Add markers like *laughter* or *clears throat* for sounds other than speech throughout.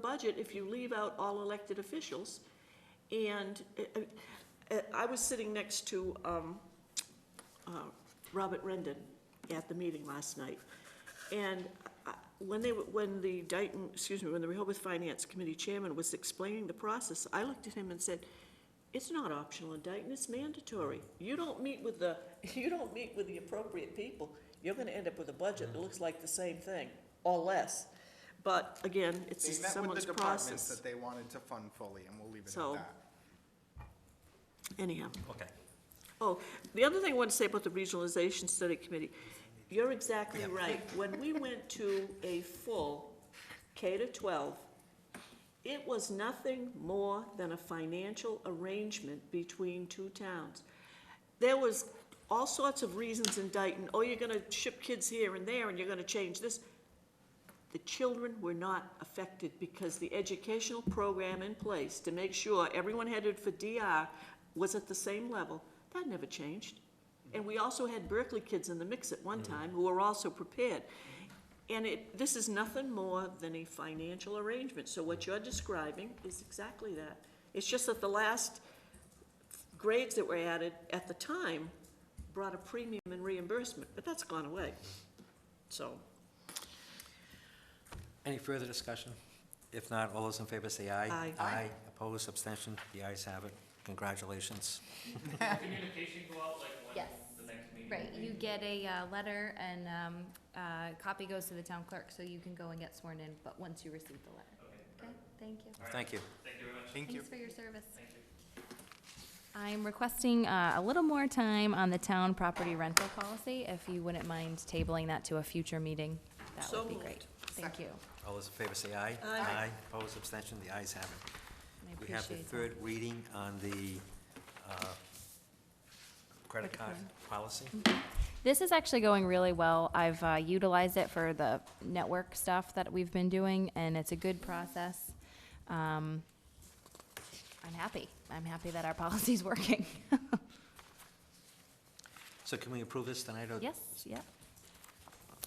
budget if you leave out all elected officials. And uh, uh, I was sitting next to um, uh, Robert Rendon at the meeting last night. And I- when they, were- when the Dayton, excuse me, when the Rehoboth Finance Committee Chairman was explaining the process, I looked at him and said, it's not optional in Dayton, it's mandatory. You don't meet with the, *laughs* you don't meet with the appropriate people, you're gonna end up with a budget that looks like the same thing, or less. But again, it's They just met with someone's the departments process. that they wanted to fund fully, and we'll leave it So- at that. Anyhow, Okay. oh, the other thing I want to say about the Regionalization Study Committee, you're exactly right. When we went to a full K to twelve, it was nothing more than a financial arrangement between two towns. There was all sorts of reasons in Dayton, oh, you're gonna ship kids here and there, and you're gonna change this. The children were not affected because the educational program in place to make sure everyone headed for DR was at the same level, that never changed. And we also had Berkeley kids in the mix at one time who were also prepared. And it, this is nothing more than a financial arrangement, so what you're describing is exactly that. It's just that the last grades that were added at the time brought a premium in reimbursement, but that's gone away. So, Any further discussion? If not, all those in favor say aye. Aye. Aye. Aye, opposed, abstention, the ayes have it. Congratulations. Communication go out like when Yes. the next meeting? Right, will you be? get a uh, letter and um, uh, copy goes to the town clerk, so you can go and get sworn in, but once you receive the letter. Okay, Okay, thank you. Thank you. thank you very much. Thank you. Thanks for your service. Thank you. I'm requesting uh, a little more time on the town property rental policy. If you wouldn't mind tabling that to a future meeting, that So would be moved. great. Thank you. All those in favor say aye. Aye. opposed, abstention, the ayes have it. I We have the appreciate that. third reading on the uh, credit card policy. This is actually going really well. I've uh, utilized it for the network stuff that we've been doing, and it's a good process. Um, I'm happy. I'm happy that our *laughs* policy's working. So can we approve this tonight? or- Yes, yeah.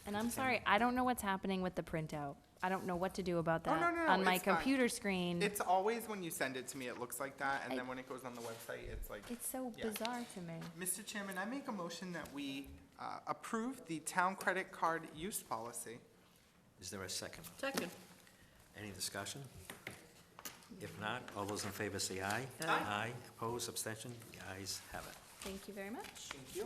And I'm sorry, I don't know what's happening with the printout. I don't know what to do about Oh, that. no, no, no, On my it's fine. computer mm. screen, It's always when you send it to me, it looks like that, and I- then when it goes on the website, it's like, it's so Yeah. bizarre to me. Mr. Chairman, I make a motion that we uh, approve the town credit card use policy. Is there a second? second. Any discussion? If not, all those in favor say aye. Aye. Aye, opposed, abstention, the ayes have it. Thank you very much. Thank you.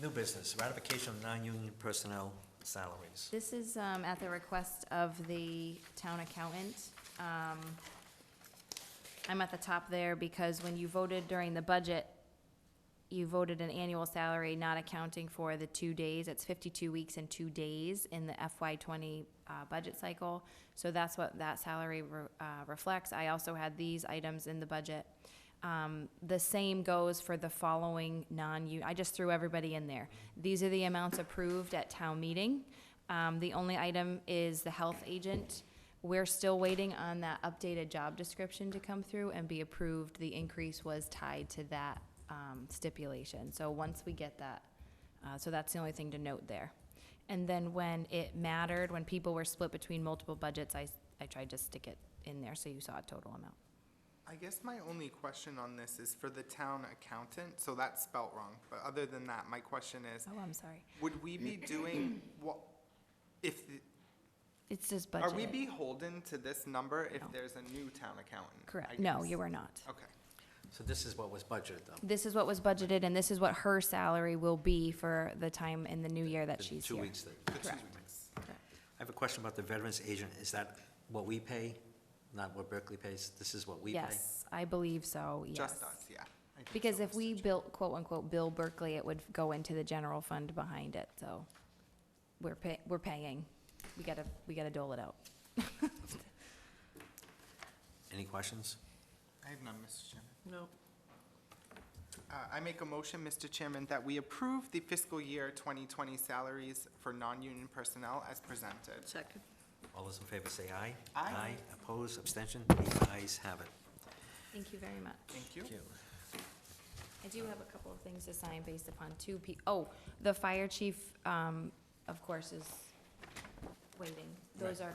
New business, ratification of non-union personnel salaries. This is um, at the request of the town accountant. Um, I'm at the top there because when you voted during the budget, you voted an annual salary not accounting for the two days. It's 52 weeks and two days in the FY '20 uh, budget cycle. So that's what that salary re- uh, reflects. I also had these items in the budget. Um, The same goes for the following non-union, I just threw everybody in there. These are the amounts approved at town meeting. Um, The only item is the health agent. We're still waiting on that updated job description to come through and be approved. The increase was tied to that um, stipulation. So once we get that, uh, so that's the only thing to note there. And then when it mattered, when people were split between multiple budgets, I, I tried to stick it in there so you saw a total amount. I guess my only question on this is for the town accountant, so that's spelt wrong, but other than that, my question is, Oh, I'm sorry. would we be Mm. doing *clears throat* what, if, the- It's just are we budgeted. beholden to this number if No. there's a new town accountant? I Correct. No, guess. you were not. Okay. So this is what was budgeted, though. This is what was budgeted and this is what her salary will be for the time in the new year that The she's Two here. weeks. that- The two Correct. weeks. I have a question about the veterans agent. Is that what we pay, not what Berkeley pays? This is what we pay? Yes, I believe so, yes. Just us, yeah. I think Because so, if Mr. we built quote-unquote Bill Berkeley, it would go into the general fund behind it, so we're pay, we're paying. We gotta, we gotta dole it out. Any questions? I have none, Mr. Chairman. No. Uh, I make a motion, Mr. Chairman, that we approve the fiscal year 2020 salaries for non-union personnel as presented. Second. All those in favor say aye. Aye. Aye, opposed, abstention, the ayes have it. Thank you very much. Thank you. I do have a couple of things to sign based upon two pe, oh, the fire chief, um, of course, is waiting. Those are